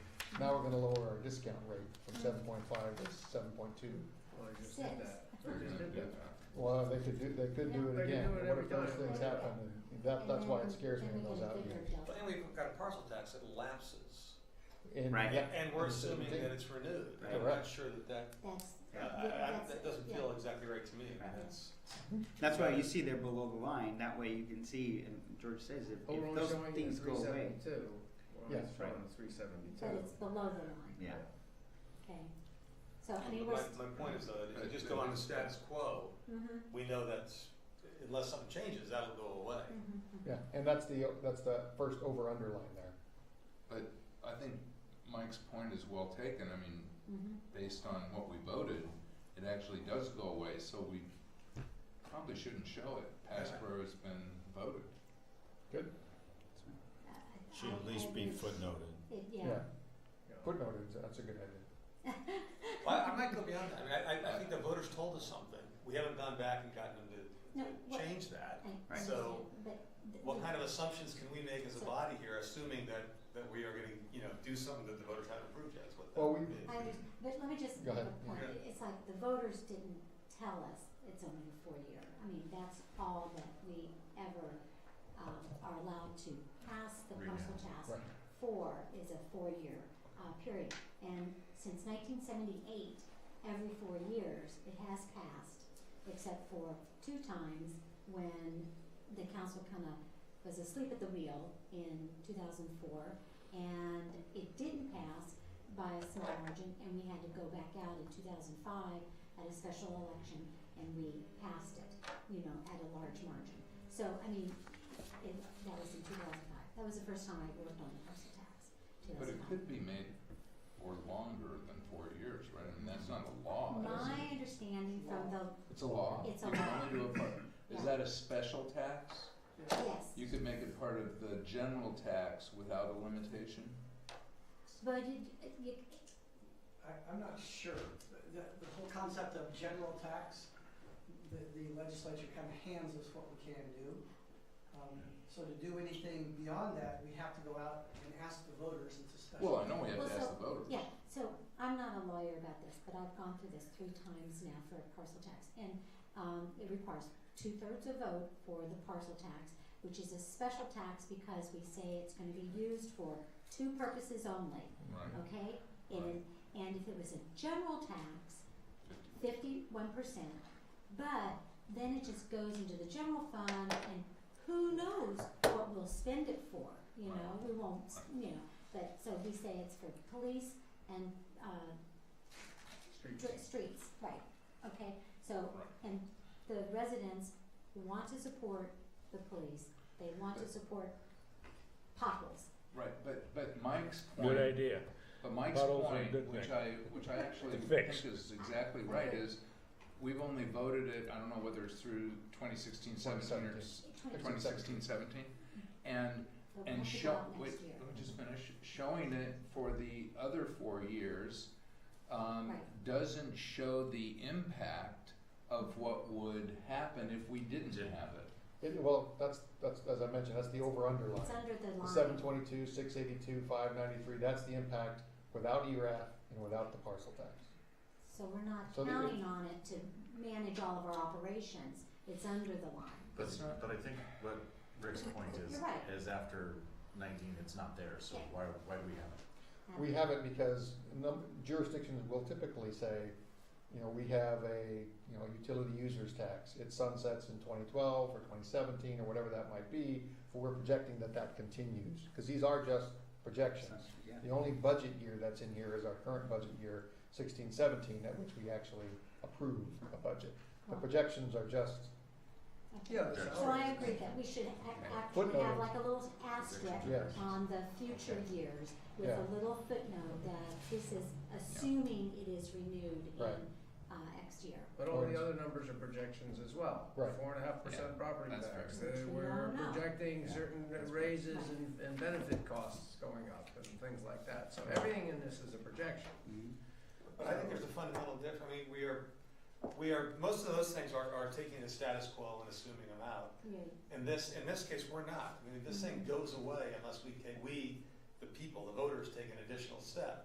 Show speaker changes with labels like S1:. S1: Now we're gonna lower our discount rate from
S2: Mm.
S1: seven point five to seven point two.
S2: Well, I just did
S3: Six.
S2: that.
S4: We're gonna do that.
S1: Well, they could do, they could do
S2: They
S1: it
S2: could
S1: again,
S2: do it
S1: but what
S2: every
S1: if those
S2: time.
S1: things happen, and that, that's why it scares me in those out years.
S5: But then we've got a parcel tax that lapses.
S1: And
S6: Right.
S1: that-
S5: And we're
S3: Mm-hmm.
S1: that's the
S5: assuming
S1: thing.
S5: that it's renewed. I'm not
S1: Correct.
S5: sure that that,
S3: That's,
S5: uh,
S3: yeah,
S5: I-
S3: that's-
S5: that doesn't
S3: yeah.
S5: feel exactly right to me. I
S3: Uh-huh.
S5: mean,
S6: Right.
S5: that's-
S6: That's why you see they're below the line, that way you can see, and George says if,
S4: But Oh, we're
S6: if
S4: only
S6: those
S4: showing the
S6: things go
S4: three
S6: away.
S4: seventy-two, we're
S1: Yeah.
S4: only showing the three
S3: But
S4: seventy-two.
S3: it's below the line,
S6: Yeah.
S3: okay. So, I mean, we're,
S5: My, my point is though, that if you just go on the status quo,
S3: mm-hmm,
S5: we know that's, unless something changes, that'll go away.
S3: mm-hmm.
S1: Yeah, and that's the, that's the first over underline there.
S4: I think Mike's point is well taken, I mean,
S3: mm-hmm.
S4: based on what we voted, it actually does go away, so we probably shouldn't show it
S5: past
S4: where it's been voted.
S3: Should at least be footnoted. Yeah,
S1: Yeah. Footnote, is- that's a good idea.
S5: Well, I I might go beyond that. I mean, I- I, I think the voters told us something. We haven't gone back and gotten them
S3: No,
S5: to-
S3: what-
S5: to change that.
S3: I
S6: Right.
S3: understand,
S5: So,
S3: but. th-
S5: What
S3: th-
S5: kind of assumptions can we make as a
S3: So-
S5: body here, assuming that, that we are gonna, you know, do something that the voters haven't approved yet, is what that
S1: Well, we-
S5: would be.
S3: I understand, but let me just
S1: Go
S3: make
S1: ahead.
S3: a point,
S5: Yeah.
S3: it's like the voters didn't tell us it's only a four-year, I mean, that's all that we ever, um, are allowed to pass the parcel task
S1: Right.
S3: four is a four-year, uh, period. And since nineteen seventy-eight, every four years, it has passed, except for two times when the council kinda was asleep at the wheel in two thousand four, and it didn't pass by a small margin, and we had to go back out in two thousand five at a special election, and we passed it, you know, at a large margin. So, I mean, it, that was in two thousand five, that was the first time I worked on the parcel tax, two
S4: But
S3: thousand
S4: it
S3: five.
S4: could be made for longer than four years, right? I mean, that's not a law, is
S3: My
S4: it?
S3: understanding from the,
S4: It's a law.
S3: It's a
S4: You can
S3: law.
S4: only do it part- Is that a special tax?
S3: yes,
S4: You could make it part of the general tax without a limitation?
S3: but it, it, you,
S7: I, I'm not sure. The, the whole concept of general tax, the, the legislature kind of hands us what we can do. Um, so to do anything beyond that, we have to go out and ask the voters. It's a special.
S4: Well, I know we have
S3: Well,
S4: to ask the voters.
S3: Yeah, so I'm not a lawyer about this, but I've gone through this three times now for parcel tax. And um, it requires two-thirds of vote for the parcel tax, which is a special tax because we say it's gonna be used for two purposes only,
S4: Right,
S3: okay? And, and if it was a general tax,
S4: fifty.
S3: fifty-one percent, but then it just goes into the general fund and who knows what we'll spend it for, you know, we won't, s- you know, but, so we say it's for police and, uh, dr- streets, right, okay, so,
S4: Right.
S3: and the residents want to support the police, they want to support potholes,
S4: Right, but, but Mike's point.
S8: Good idea.
S4: But Mike's
S8: Potholes are a
S4: point,
S8: good
S4: which
S8: thing.
S4: I, which I actually
S8: To
S4: think
S8: fix.
S4: is exactly right, is we've only voted it, I don't know whether it's through 2016, 17 or s-
S3: twenty,
S4: 2016, 17. And,
S3: they'll
S4: and
S3: have to go
S4: show,
S3: out
S4: wait,
S3: next year.
S4: let me just finish, showing it for the other four years, um,
S3: Right.
S4: doesn't show the impact of what would happen if we didn't
S6: Yeah.
S4: have it.
S1: It, well, that's, that's, as I mentioned, that's the over underline.
S3: It's under the line.
S1: Seven twenty-two, six eighty-two, five ninety-three, that's the impact without E ERAF and without the parcel tax.
S3: So we're not
S1: So the-
S3: counting on it to manage all of our operations, it's under the line.
S5: But,
S4: It's not-
S5: but I think what Rick's point is,
S3: You're right.
S5: is after nineteen, it's not there, so
S3: Yeah.
S5: why, why do we have it?
S1: We have it because num- jurisdictions will typically say, you know, we have a, you know, utility users tax. It sunsets in twenty twelve or twenty seventeen or whatever that might be, but we're projecting that that continues. Cause these are just projections.
S6: Yeah.
S1: The only budget year that's in here is our current budget year, sixteen seventeen, at which we actually approve a budget. The
S3: Wow.
S1: projections are just,
S3: Okay.
S2: Yeah, the
S4: Sure.
S3: So I
S2: salaries.
S3: agree that we should ac- actually
S1: Footnote.
S3: have like a little asterisk
S1: yes.
S3: on the future years with
S1: Yeah.
S3: a little footnote that this is assuming it is renewed in,
S1: Right.
S3: uh, next year.
S2: But all the other numbers are projections as well.
S1: Right.
S2: Four and a half percent property
S4: that's
S2: tax.
S3: fair.
S2: Uh,
S3: Which we
S2: We're
S3: don't know.
S2: projecting
S4: Yeah,
S2: certain
S4: that's fair.
S2: raises and, and benefit costs going up and things like that. So everything in this is a projection.
S6: Mhm.
S5: But I think there's a fundamental difference, I mean, we are, we are, most of those things are, are taking the status quo and assuming them out.
S3: Yeah.
S5: In this, in this case, we're not, I mean, this thing goes away unless we, take we, the people, the voters, take an additional step.